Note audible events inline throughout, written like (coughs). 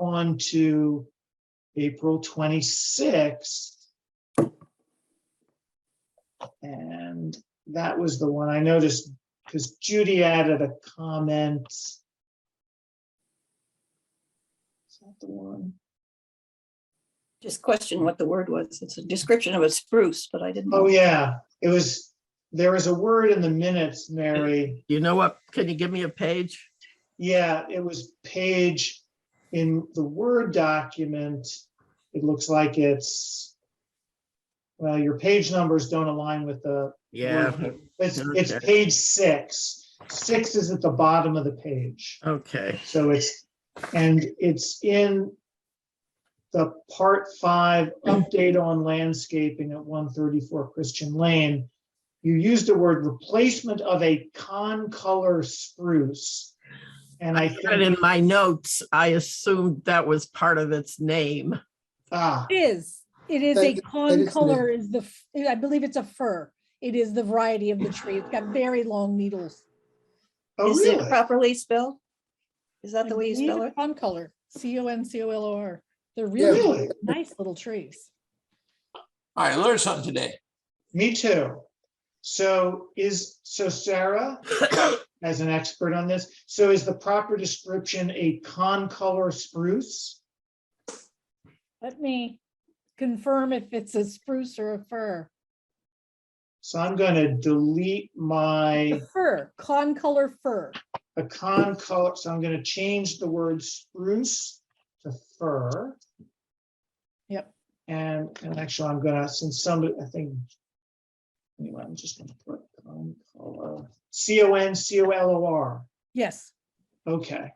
on to April twenty-sixth. And that was the one I noticed, because Judy added a comment. Is that the one? Just question what the word was. It's a description of a spruce, but I didn't. Oh, yeah, it was, there was a word in the minutes, Mary. You know what? Can you give me a page? Yeah, it was page in the Word document. It looks like it's, well, your page numbers don't align with the, Yeah, it's, it's Okay. page six. Six is at the bottom of the page. okay. So it's, and it's in the part five, update on landscaping at one thirty-four Christian Lane. You used the word replacement of a con-color spruce. And I But think, in my notes, I assumed that was part of its name. ah, It is, it is a That- that is con the- color is the, f- I believe it's a fir. It is the variety of the tree. It's got very long needles. oh, Is it really? properly spelled? Is that the way you spell it? Con color, C O N C O L O R. They're Yeah. really nice little trees. All right, learn something today. Me too. So is, so Sarah, (coughs) as an expert on this, so is the proper description a con-color spruce? Let me confirm if it's a spruce or a fir. So I'm gonna delete my. The fir, con color fir. a con color, so I'm gonna change the word spruce to fir. Yep. And, and actually, I'm gonna, since somebody, I think. Anyway, I'm just gonna put con color, C O N C O L O R, Yes, okay.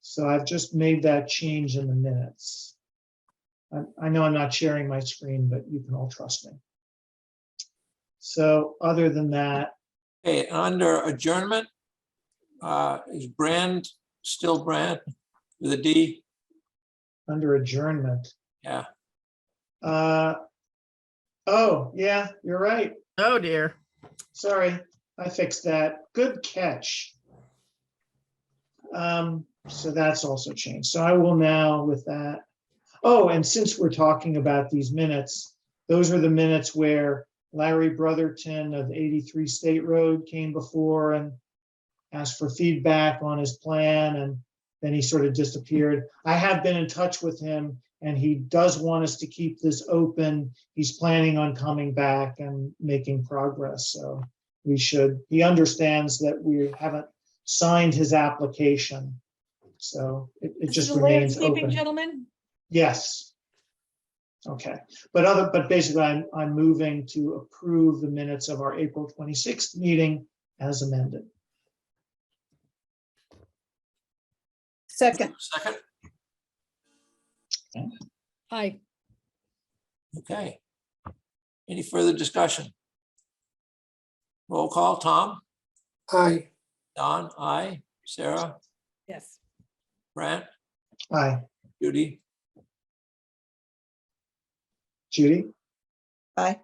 So I've just made that change in the minutes. I, I know I'm not sharing my screen, but you can all trust me. So other than that, Okay, under adjournment, uh, is Brand still Brand with a D? under adjournment. Yeah. Uh, oh, yeah, you're right. Oh dear. Sorry, I fixed that. Good catch. Um, so that's also changed. So I will now with that. Oh, and since we're talking about these minutes, those were the minutes where Larry Brotherton of 83 State Road came before and asked for feedback on his plan and then he sort of disappeared. I have been in touch with him and he does want us to keep this open he's planning on coming back and making progress, so we should, he understands that we haven't signed his application. So it, it this is just a remains landscaping open. gentleman. Yes. Okay, but other, but basically I'm, I'm moving to approve the minutes of our April twenty-sixth meeting as amended. Second, Second, Hi, okay. Any further discussion? Roll call, Tom, Aye, Don, I, Sarah, yes. Brand, Hi, Judy, Judy? Aye.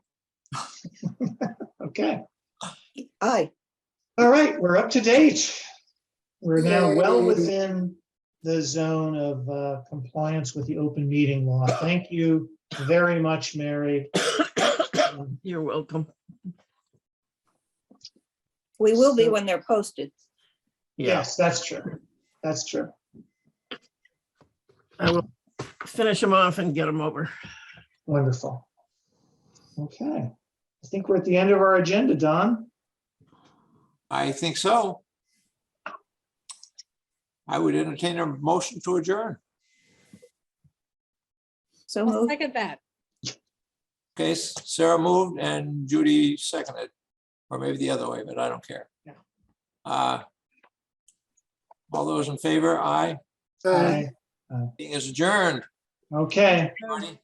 (laughs) Okay, aye. all right, we're up to date. We're now well Yay. within the zone of uh, compliance with the open meeting law. Thank you very much, Mary. Um, You're welcome. We will be So- when they're posted. Yeah, Yes, that's true. That's true. I will finish them off and get them over. Wonderful. Okay, I think we're at the end of our agenda, Don. I think so. I would entertain a motion to adjourn. So I'll moved. second that. Okay, Sarah moved and Judy seconded, or maybe the other way, but I don't care. Yeah. Uh, All those in favor, aye, aye. Aye. meeting is adjourned. Okay, Marty,